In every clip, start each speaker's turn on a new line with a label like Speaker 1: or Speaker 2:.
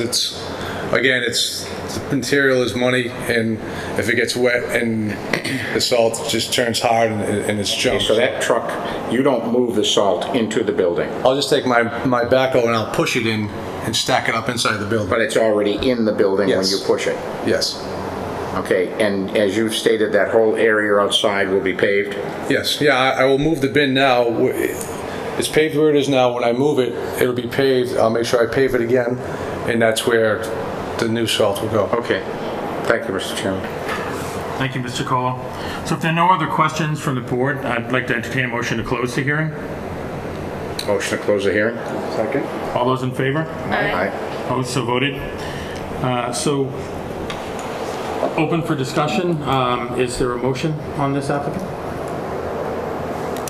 Speaker 1: It's, again, it's, the material is money, and if it gets wet and the salt just turns hard and and it's junk.
Speaker 2: So that truck, you don't move the salt into the building,
Speaker 1: I'll just take my, my backhoe and I'll push it in and stack it up inside the building.
Speaker 2: but it's already in the building when
Speaker 1: Yes.
Speaker 2: you push it.
Speaker 1: Yes,
Speaker 2: Okay, and as you've stated, that whole area outside will be paved?
Speaker 1: yes, yeah, I I will move the bin now. It's paved where it is now. When I move it, it'll be paved. I'll make sure I pave it again, and that's where the new salt will go.
Speaker 2: Okay, thank you, Mr. Chairman.
Speaker 3: Thank you, Mr. Colo. So if there are no other questions from the board, I'd like to entertain a motion to close the hearing.
Speaker 2: Motion to close the hearing?
Speaker 4: Second?
Speaker 3: All those in favor?
Speaker 2: Aye.
Speaker 3: Opposed, so voted. Uh, So open for discussion. Um, Is there a motion on this applicant?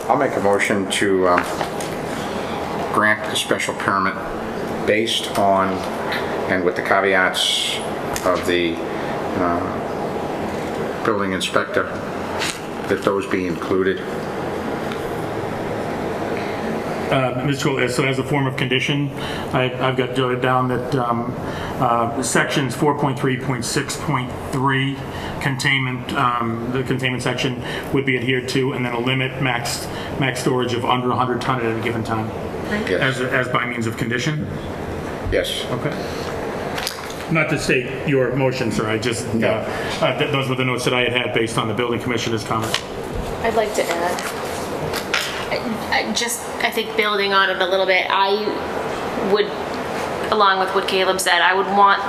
Speaker 2: I'll make a motion to um, grant the special permit based on, and with the caveats of the uh, building inspector, that those be included.
Speaker 3: Mr. Cole, so Uh, as a form of condition, I- I've got jotted down that um, uh, sections 4.3.6.3 containment, um, the containment section would be adhered to, and then a limit max, max storage of under 100 ton at any given time,
Speaker 2: Yes.
Speaker 3: as, as by means of condition?
Speaker 2: Yes.
Speaker 3: Okay. Not to state your motion, sir, I just, uh, uh, th- those were the notes that I had had based on the building commissioner's comment.
Speaker 5: I'd like to add. I- I Just, I think building on it a little bit, I would, along with what Caleb said, I would want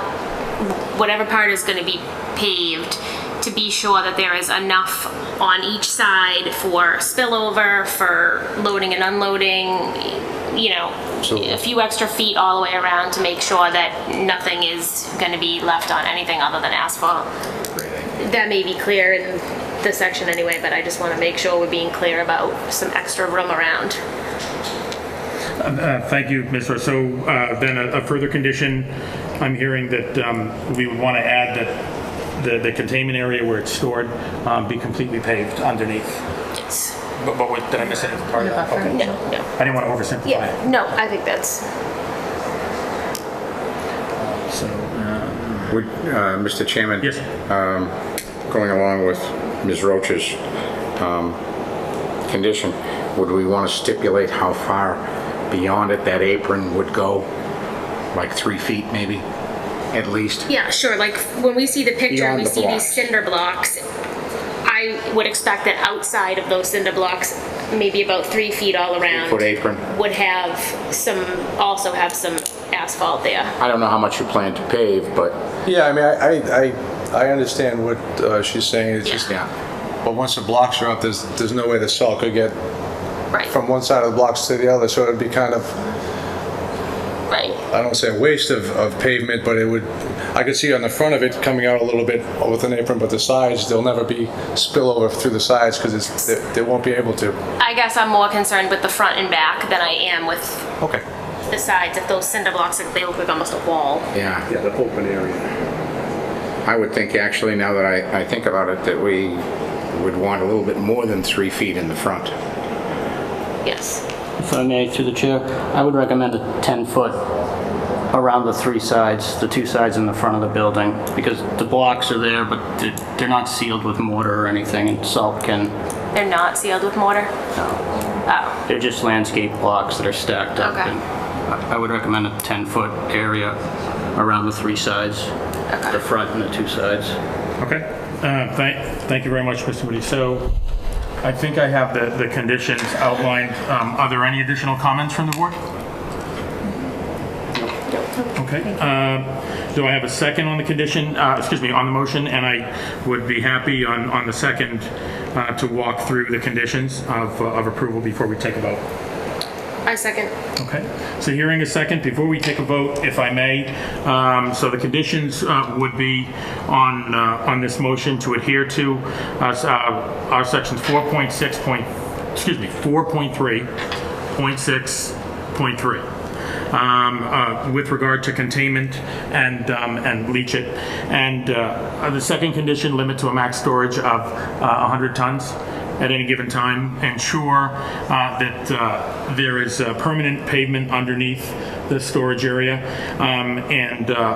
Speaker 5: whatever part is gonna be paved to be sure that there is enough on each side for spillover, for loading and unloading, you know, a few extra feet all the way around to make sure that nothing is gonna be left on anything other than asphalt that may be clear in this section anyway, but I just want to make sure we're being clear about some extra room around.
Speaker 3: Uh, Thank you, Ms. Rowe. So uh, then a a further condition, I'm hearing that um, we would want to add that the- the containment area where it's stored um, be completely paved underneath.
Speaker 5: Yes.
Speaker 3: But but what, did I miss any part of that? Okay.
Speaker 5: No, no.
Speaker 3: I didn't want to oversimplify it.
Speaker 5: Yeah, no, I think that's,
Speaker 3: So, uh,
Speaker 2: Would, uh, Mr. Chairman?
Speaker 3: Yes.
Speaker 2: um, Going along with Ms. Roach's um, condition, would we want to stipulate how far beyond it that apron would go? Like three feet, maybe, at least?
Speaker 5: yeah, sure, like, when we see the picture
Speaker 2: Beyond
Speaker 5: and we
Speaker 2: the
Speaker 5: see these
Speaker 2: blocks.
Speaker 5: cinder blocks, I would expect that outside of those cinder blocks, maybe about three feet all around.
Speaker 2: Foot apron?
Speaker 5: Would have some, also have some asphalt there.
Speaker 2: I don't know how much you plan to pave, but,
Speaker 1: Yeah, I mean, I, I- I, I understand what uh, she's saying, it's just,
Speaker 2: yeah,
Speaker 1: but once the blocks are up, there's, there's no way the salt could get
Speaker 5: Right,
Speaker 1: from one side of the blocks to the other, so it'd be kind of,
Speaker 2: Oh.
Speaker 5: right.
Speaker 1: I don't say a waste of, of pavement, but it would, I could see on the front of it coming out a little bit with an apron, but the sides, there'll never be spillover through the sides, because it's, they, they won't be able to.
Speaker 5: I guess I'm more concerned with the front and back than I am with
Speaker 1: Okay.
Speaker 5: the sides, if those cinder blocks, if they look like almost a wall.
Speaker 2: yeah.
Speaker 4: Yeah, the open area.
Speaker 2: I would think, actually, now that I, I think about it, that we would want a little bit more than three feet in the front.
Speaker 5: Yes.
Speaker 6: If I may, through the chair, I would recommend a 10-foot around the three sides, the two sides in the front of the building, because the blocks are there, but they're- they're not sealed with mortar or anything, and salt can,
Speaker 5: They're not sealed with mortar? Oh,
Speaker 6: they're just landscape blocks that are stacked up.
Speaker 5: Okay.
Speaker 6: and I I would recommend a 10-foot area around the three sides, the front and the two sides.
Speaker 3: Okay. Uh, Thank thank you very much, Mr. Moody. So I think I have the the conditions outlined. Um, Are there any additional comments from the board? Okay. um, Do I have a second on the condition, uh, excuse me, on the motion? And I would be happy on, on the second uh, to walk through the conditions of, uh, of approval before we take a vote.
Speaker 5: I second.
Speaker 3: Okay, so hearing a second, before we take a vote, if I may, um, so the conditions uh, would be on, uh, on this motion to adhere to uh, s- uh, our sections 4.6 point, excuse me, 4.3.6.3 um, uh, with regard to containment and, um, and leach it. And uh, the second condition, limit to a max storage of uh, 100 tons at any given time, ensure uh, that uh, there is uh, permanent pavement underneath the storage area, um, and uh,